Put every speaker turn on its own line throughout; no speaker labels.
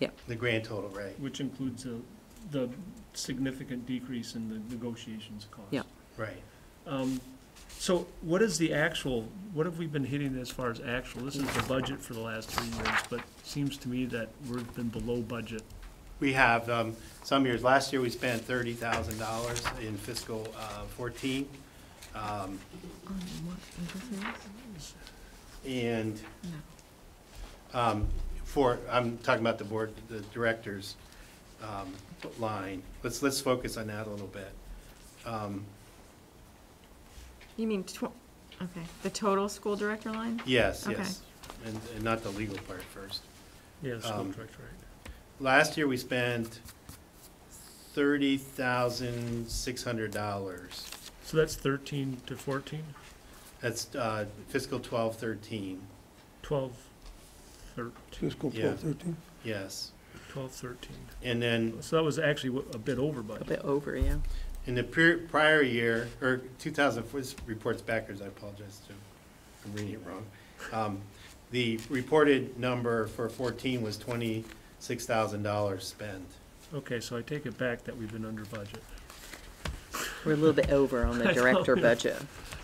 Yeah.
The grand total, right?
which includes the, the significant decrease in the negotiations cost.
Yeah.
Right.
Um, so what is the actual, what have we been hitting as far as actual? This is the budget for the last three years, but seems to me that we've been below budget.
We have, um, some years, last year we spent thirty thousand dollars in fiscal, uh, fourteen. Um, and, um, for, I'm talking about the board, the directors, um, line. Let's, let's focus on that a little bit. Um,
You mean tw- okay, the total school director line?
yes,
Okay.
yes. And, and not the legal part first.
Yeah, school
Um,
director, right.
Last year, we spent thirty thousand six hundred dollars.
So that's thirteen to fourteen,
That's uh, fiscal twelve thirteen,
twelve, thirteen,
Fiscal
Yeah.
twelve thirteen.
yes.
twelve, thirteen.
And then
So that was actually wha- a bit over
A
budget.
bit over, yeah.
in the per- prior year, or two thousand four, this report's backwards, I apologize to, I'm reading it wrong. Um, The reported number for fourteen was twenty-six thousand dollars spent.
Okay, so I take it back that we've been under budget.
We're a little bit over on the
I know.
director budget.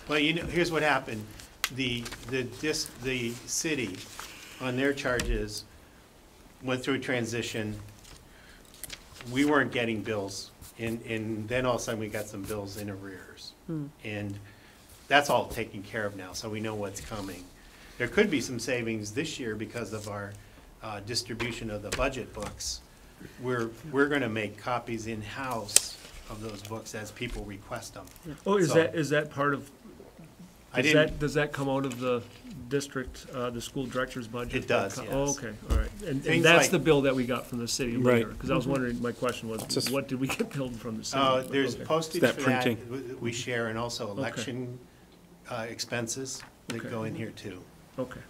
Well, you know, here's what happened. The, the dis, the city, on their charges, went through a transition. We weren't getting bills, and, and then all of a sudden, we got some bills in arrears. And that's all taken care of now, so we know what's coming. There could be some savings this year because of our uh, distribution of the budget books. We're, we're gonna make copies in-house of those books as people request them.
Oh, is
So-
that, is that part of,
I
does
didn't-
that, does that come out of the district, uh, the school director's budget?
It does,
That co- Oh,
yes.
okay, all right. And, and
Things
that's
like- Mm-hmm.
the bill that we got from the city later,
Right.
because I was wondering, my question was,
just-
what did we get billed from the city?
Uh, there's
Okay.
postage
That
for that,
printing.
w- we share, and also election uh, expenses that
Okay.
go in here too.
Okay,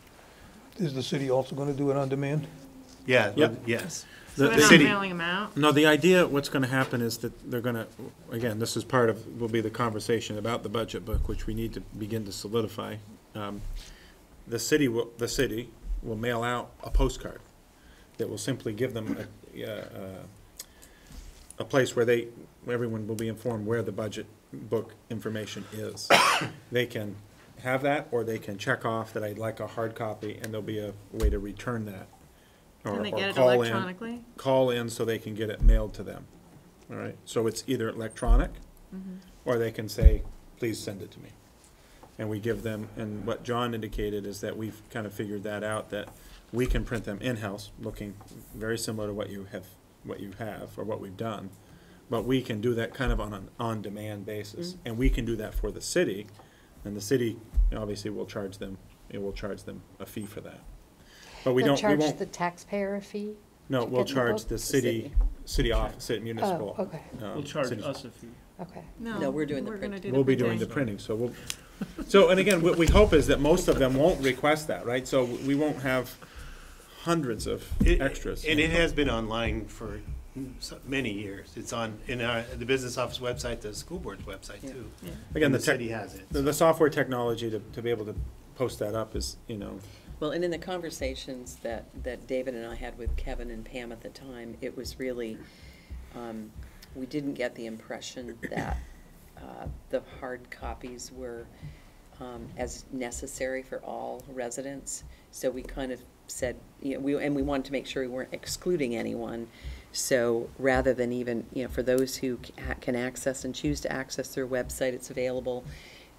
Is the city also gonna do it on demand?
Yeah,
Yep.
but- yes.
So
The-
they're
the
not
city-
mailing them out?
No, the idea, what's gonna happen is that they're gonna, again, this is part of, will be the conversation about the budget book, which we need to begin to solidify. Um, The city will, the city will mail out a postcard that will simply give them a, uh, a place where they, where everyone will be informed where the budget book information is. They can have that, or they can check off that I'd like a hard copy, and there'll be a way to return that. or-
Can they
or
get it
call in
electronically?
call in so they can get it mailed to them. All right, so it's either electronic,
Mm-hmm.
or they can say, please send it to me. And we give them, and what John indicated is that we've kind of figured that out, that we can print them in-house, looking very similar to what you have, what you have, or what we've done. But we can do that kind of on an on-demand
Mm-hmm.
basis, and we can do that for the city, and the city, obviously, will charge them, it will charge them a fee for that. But we don't,
They'll
we
charge
won't.
the taxpayer a fee?
No,
to
we'll
get the
charge
book?
the city, city office, city municipal.
Oh, okay,
um,
we'll charge
city-
us a fee.
okay.
No, we're doing the
we're gonna
printing.
do
We'll be doing the
printing.
printing, so we'll, so, and again, what we hope is that most of them won't request that, right? So we won't have hundreds of
It-
extras.
And it has been online for so- many years. It's on, in our, the business office website, the school board's website
Yeah.
too.
Again,
And
the
the
tech,
city has it.
the, the software technology to, to be able to post that up is, you know,
Well, and in the conversations that, that David and I had with Kevin and Pam at the time, it was really, um, we didn't get the impression that, uh, the hard copies were, um, as necessary for all residents. So we kind of said, you know, we, and we wanted to make sure we weren't excluding anyone. So rather than even, you know, for those who ca- can access and choose to access their website, it's available.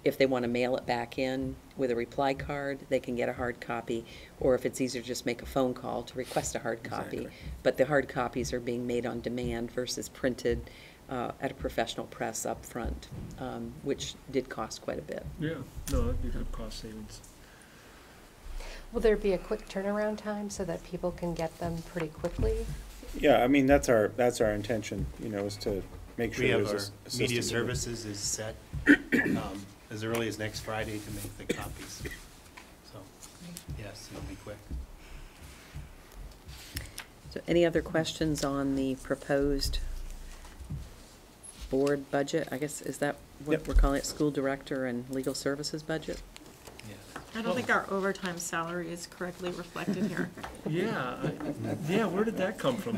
If they want to mail it back in with a reply card, they can get a hard copy, or if it's easier, just make a phone call to request a hard copy.
Exactly.
But the hard copies are being made on demand versus printed uh, at a professional press up front, um, which did cost quite a bit.
Yeah, no, that'd be good cost savings.
Will there be a quick turnaround time so that people can get them pretty quickly?
yeah, I mean, that's our, that's our intention, you know, is to make
We
sure
have
there's a
our
s- system.
media services is set um, as early as next Friday to make the copies. So, yes, it'll be quick.
So any other questions on the proposed board budget? I guess, is that what
Yep.
we're calling it, school director and legal services budget?
Yeah.
I don't think our overtime salary is correctly reflected here.
Yeah, I- yeah, where did that come from?